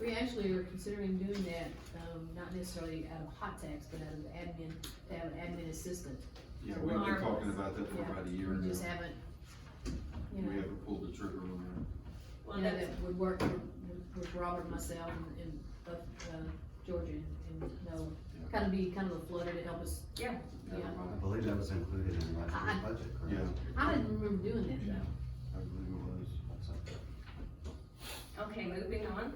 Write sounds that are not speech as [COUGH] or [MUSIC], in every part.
We actually are considering doing that, um, not necessarily out of hot tax, but out of admin, to have an admin assistant. Yeah, we've been talking about that for about a year We now. just haven't, you We know, haven't pulled the trigger on Well, you know, that's, that would work with, with Robert, myself, and, and, both, uh, Georgia and Noah. Yeah. Kind of be kind of a flutter to help us, that. Yeah. Everybody, I believe that was included in last year's budget, correct? I didn't remember doing that though. I believe it was. So, okay, moving on,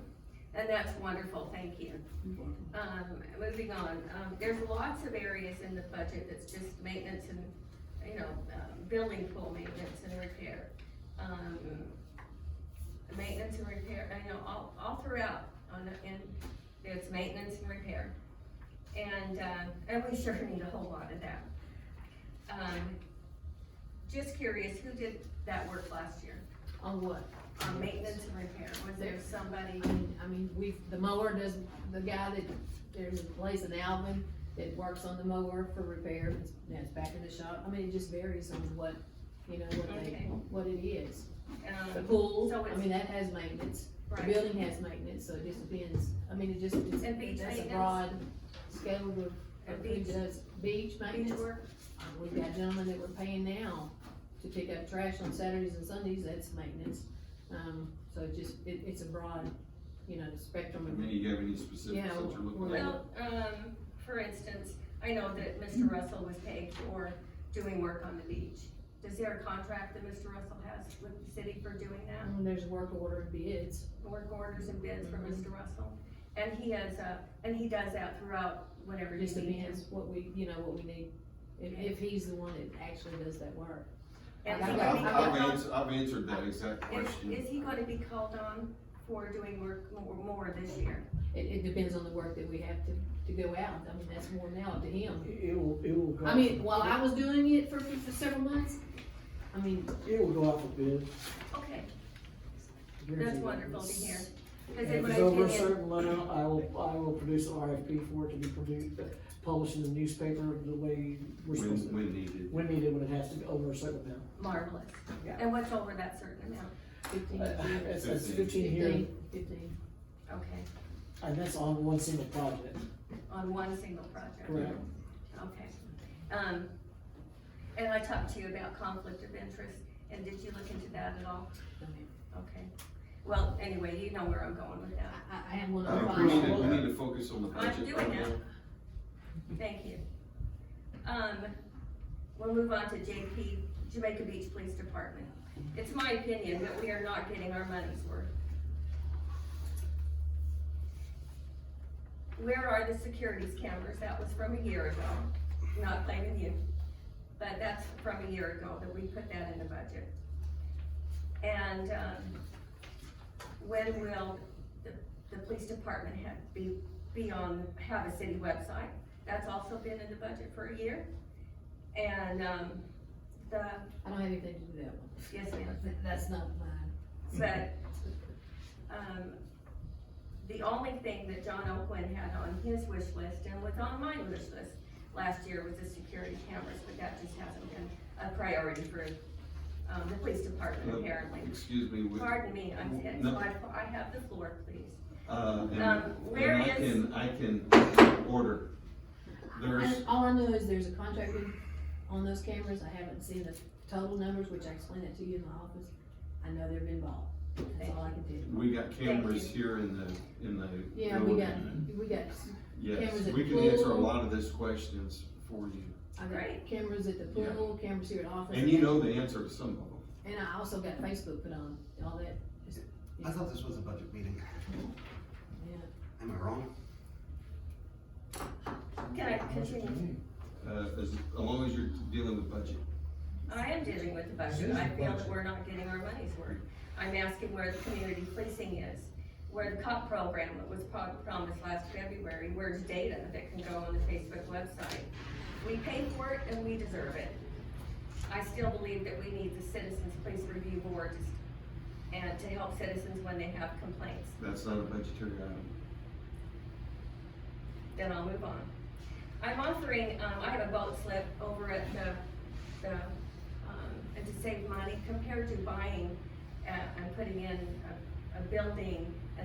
and that's wonderful, thank you. Um, moving on, um, there's lots of areas in the budget that's just maintenance and, you know, um, building pool maintenance and repair. Um, maintenance and repair, I know, all, all throughout, on, the- in, there's maintenance and repair. And, uh, and we [LAUGHS] sure need a whole lot of that. Um, just curious, who did that work last year, On what? on maintenance and repair, was there somebody? I mean, I mean, we, the mower does, the guy that, there's a place in Alvin that works on the mower for repair, it's- that's back in the shop. I mean, it just varies on what, you know, what they, Okay. what it is. The Um, pool, So I it's- mean, that has maintenance, the right, building has maintenance, so it just depends, I mean, it just, it's, And beach that's a maintenance? broad scale of, And of who beach- does beach beach maintenance. work? Uh, We've got gentlemen that we're paying now to pick up trash on Saturdays and Sundays, that's maintenance. Um, so it just, it, it's a broad, you know, spectrum I of mean, you have any specifics Yeah, that you're looking at? Well, um, for instance, I know that Mr. Russell was paid for doing work on the beach. Is there a contract that Mr. Russell has with the city for doing that? Um, There's work order and bids. Work orders and bids for Mr. Russell? And he has, uh, and he does that throughout whenever It you just need him. depends what we, you know, what we need, if, if he's the one that actually does that work. And I- he I've- gonna be I've, I've called- answered, I've answered that exact Is, question. is he gonna be called on for doing work more, more this year? It, it depends on the work that we have to, to go out, I mean, that's more now up to him. It will, it will go. I out mean, for- while I was doing it for, for several months, I mean, It will go out for bid. Okay, Guarantee that's that. wonderful to hear. Cause And in If my it's over a opinion, certain limit, I will, I will produce an RFP for it to be produced, published in the newspaper the way we're supposed When, to. when needed. When needed, when it has to be over a certain amount. marvelous. Yeah. And what's over that certain amount? fifteen, Uh, It's, it's fifteen here, fifteen, fifteen. Okay, and that's on one single project, on one single project. correct? Okay, um, and I talked to you about conflict of interest, and did you look into that at all? I mean, Okay, well, anyway, you know where I'm going with I, that, I- I have one I on appreciate file. it, we need to focus on the I'm budget. doing that. thank you. Um, we'll move on to JP, Jamaica Beach Police Department. It's my opinion that we are not getting our money's worth. Where are the securities cameras? That was from a year ago, not blaming you, but that's from a year ago that we put that in the budget. And, um, when will the, the police department have, be, be on, have a city website? That's also been in the budget for a year. And, um, the, I don't have anything to do with that one. yes, ma'am. That- That's not mine. But, um, the only thing that John O'Quinn had on his wish list and was on my wish list last year was the security cameras, but that just hasn't been a priority for, um, the police department apparently. Excuse me, we- Pardon me, I'm, it's No. my, I have the floor, please. uh, and, Um, where and I is- can, I can order. There's, I- All I know is there's a contract in- on those cameras, I haven't seen the total numbers, which I explained that to you in the office. I know they've been bought, that's all I can do. we got cameras Thank here in the, in the. Yeah, we got, building. we got, Yes, cameras at we can the answer a pool. lot of these questions for you. I got Right. cameras at the pool, cameras here at office. And you know the answer to some of them. And I also got Facebook put on, all that, I thought this was a budget meeting. yeah. Am I wrong? Can I continue? Uh, as, as long as you're dealing with budget. I am dealing with the budget, I feel that we're not getting our money's worth. I'm asking where the community policing is, where the cop program that was pro- promised last February, where's data that can go on the Facebook website? We pay for it and we deserve it. I still believe that we need the Citizens Police Review Board to- and to help citizens when they have complaints. That's not a budgetary item. then I'll move on. I'm offering, um, I have a boat slip over at the, the, um, and to save money compared to buying, uh, and putting in a, a building